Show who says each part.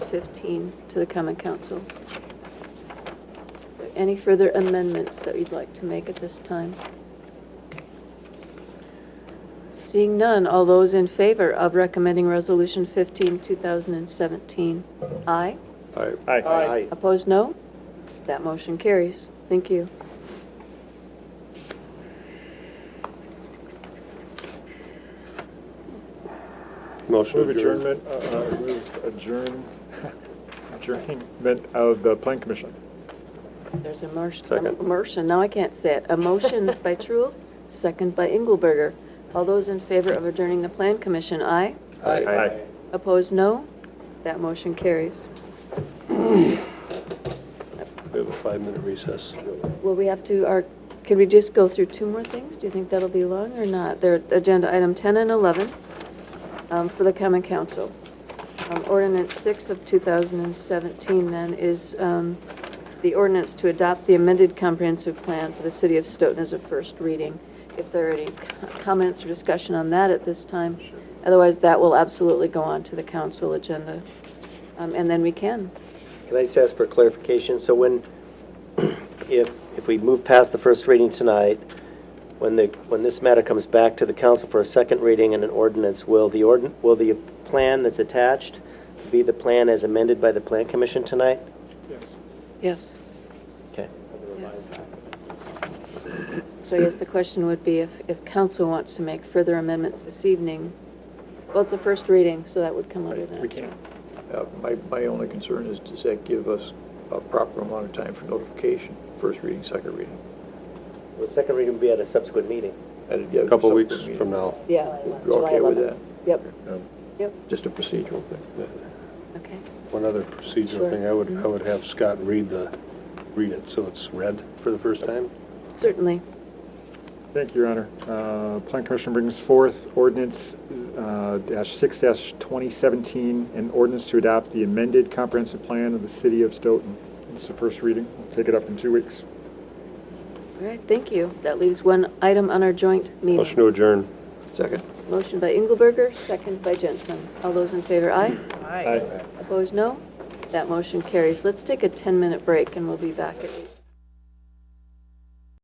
Speaker 1: 15 to the common council. Any further amendments that you'd like to make at this time? Seeing none, all those in favor of recommending Resolution 15, 2017, aye?
Speaker 2: Aye.
Speaker 3: Aye.
Speaker 1: Opposed, no? That motion carries. Thank you.
Speaker 2: Motion
Speaker 3: Move
Speaker 2: adjourned.
Speaker 3: adjournment, uh, uh, move adjourn, adjournment of the Plan Commission.
Speaker 1: There's a motion,
Speaker 2: Second.
Speaker 1: a motion, now I can't say it. A motion by Truul, second by Engelberger. All those in favor of adjourning the Plan Commission, aye?
Speaker 3: Aye.
Speaker 1: Opposed, no? That motion carries.
Speaker 2: We have a five-minute recess.
Speaker 1: Well, we have to, are, can we just go through two more things? Do you think that'll be long or not? They're agenda item 10 and 11 um, for the common council. Um, Ordinance 6 of 2017 then is um, the ordinance to adopt the amended comprehensive plan for the city of Stoughton as a first reading. If there are any co- comments or discussion on that at this time, otherwise that will absolutely go on to the council agenda. Um, And then we can.
Speaker 4: Can I just ask for clarification? So when, if, if we move past the first reading tonight, when the, when this matter comes back to the council for a second reading and an ordinance, will the ordin, will the plan that's attached be the plan as amended by the plan commission tonight?
Speaker 3: Yes.
Speaker 1: Yes.
Speaker 4: Okay.
Speaker 1: Yes. So I guess the question would be if, if council wants to make further amendments this evening, well, it's a first reading, so that would come under that.
Speaker 5: We can't. Uh, My, my only concern is, does that give us a proper amount of time for notification, first reading, second reading?
Speaker 4: The second reading will be at a subsequent meeting.
Speaker 2: A couple weeks from now.
Speaker 1: Yeah.
Speaker 5: You're
Speaker 1: July
Speaker 5: okay with Um,
Speaker 1: 11th. Yep, yep,
Speaker 5: Just a procedural thing.
Speaker 1: okay.
Speaker 2: One other procedural
Speaker 1: Sure.
Speaker 2: thing, I would, I would have Scott read the, read it so it's read for the first time.
Speaker 1: Certainly.
Speaker 3: Thank you, Your Honor. Uh, Plan Commission brings forth ordinance uh, dash six dash 2017, an ordinance to adopt the amended comprehensive plan of the city of Stoughton. It's the first reading. We'll Take it up in two weeks.
Speaker 1: All right, thank you. That leaves one item on our joint meeting.
Speaker 2: Motion to adjourn.
Speaker 5: Second?
Speaker 1: Motion by Engelberger, second by Jensen. All those in favor, aye?
Speaker 3: Aye.
Speaker 1: Opposed, no? That motion carries. Let's take a 10-minute break, and we'll be back at 8:15.